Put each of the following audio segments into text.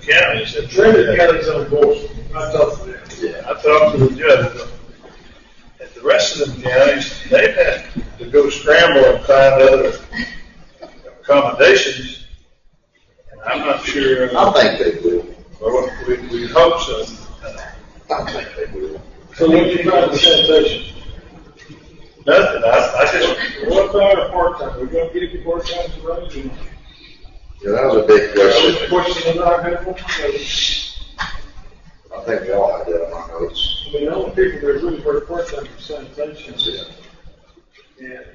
county, said, Trendon County's on board, I talked to them. Yeah, I talked to the judge, and the rest of them counties, they've had to go scramble and find other accommodations. And I'm not sure, I think they will. or we, we hope so. I think they will. So what do you trying to sanitation? Nothing, I, I just, What kind of part time, we're gonna get it part time to run it? Yeah, that was a big Which question. question that I had, I I think we all had that on our notes. mean, the only people that really work part time for sanitation Yeah, and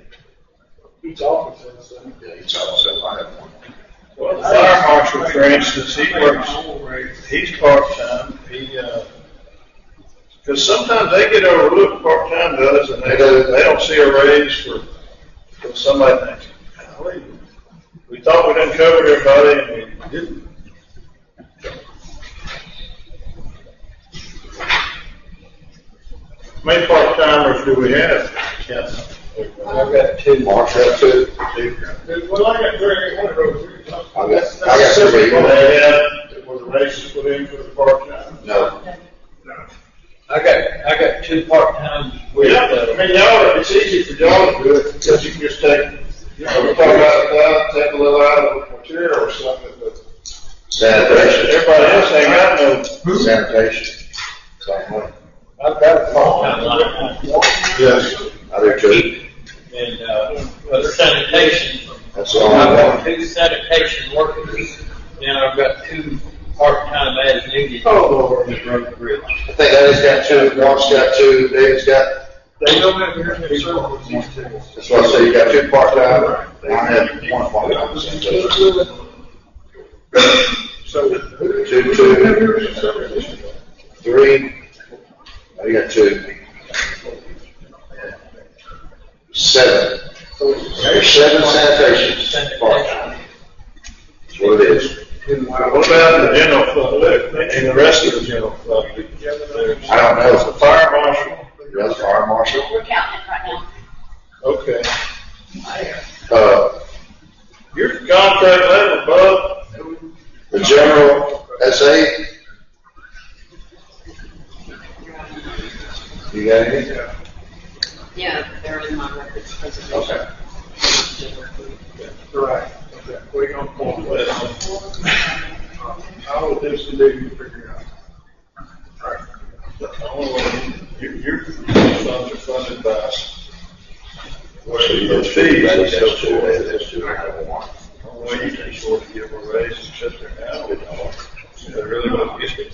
each office has some. yeah, each of us have, I have one. well, the fire marshal, for instance, he works, he's part-time, he, uh, because sometimes they get overlooked, part-time does, and they, don't- they don't see a raise for, for somebody thinks, golly, we thought we'd uncovered everybody, and we didn't. How many part-timers do we have? Yes. I've got two. Mark's got two. Well, I got three, one of those. three. I got, I got three. Well, they had, it was a race put in for the part-time. No, I got, I got two part-time with, Yeah, but, I uh, mean, y'all, it's easy for y'all to do it, because you can just take, you know, we talk about the cloud, take a little out of the material or something, but sanitation, everybody else ain't got no. sanitation. Same one. I've got a I'm phone. like, Yes. I do too. and, uh, other sanitation. That's all I I've got want. two sanitation workers, and I've got two part-time as needed. Oh, Lord. I think Eddie's got two, Mark's got two, David's got, They don't have very many services these days. that's why I say you got two part-time. and I have one part-time. sanitation. So, Two, two, three. Oh, you got two. Seven. There's seven sanitations. part-time. That's what it is. what about the general public, and the rest of the general public? There's I don't there's the know. fire marshal, That's fire marshal. We're counting it right now. okay. Uh, Your contract level above, the general, that's eight. You got any? Yeah, they're in my records presentation. Okay. Right, okay, we're gonna pull it. well, I will do some digging to figure it out. Your, your funds are funded by, where the fees and so That's two, forth. that's two, I have one. Well, you can sort of give a raise, et cetera, now, you know, they really don't get it.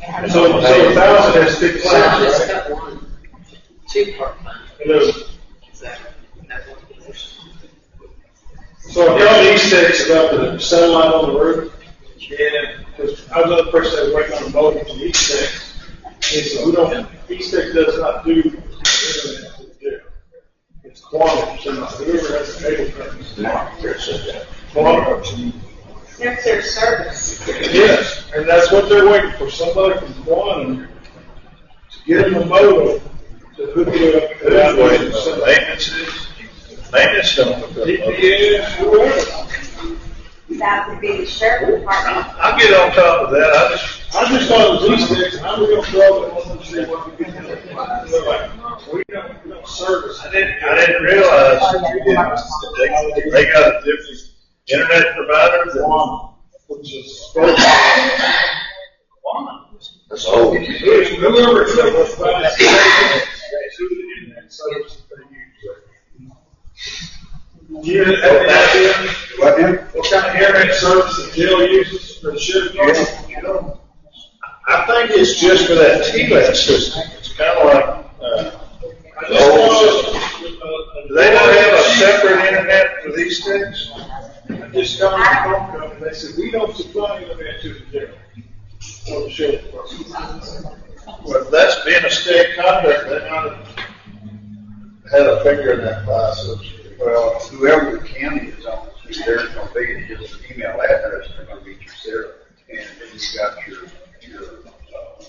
Yeah. So, so a thousand has six Well, I just sides, right? got one, two part-time, Hello. so that's one position. So if y'all need six about the satellite on the roof, and, because I was the person that was working on the boat from East Six, and so we don't, East Six does not do internet to the jail. It's quantum, so not whoever has the cable companies. Mark, here, said that. Quantum. There's their service. Yes, and that's what they're waiting for, somebody from quantum to get them a modem to hook it up. That way, the maintenance is, maintenance don't look up. GPS, whoever. That would be the sheriff department. I'll get on top of that, I just, I just thought it was these six, and I'm gonna throw it on them, see what we can do. They're like, we don't, we don't service. I didn't, I didn't realize that they, they got a different internet provider than. One, which is. Whoever That's old. took us by the state, that's who the internet service they use. You, and that's it, What now? what kind of internet service the jail uses for the sheriff? I think it's just for that TLAT system, it's kind of like, uh, I just want do they don't have a separate internet for these things? I just got a phone call, and they said, we don't supply internet to the jail. Oh, Or the sheriff department. Well, if that's being a state contract, they might have had a finger in that pie, so. to speak. Well, whoever the county is on, they're gonna be, just an email address, they're gonna be considered. And then you got your, your, uh,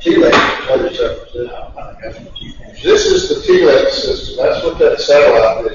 T-Lake, other stuff, that's not, that's This is the TLAC system, that's what that satellite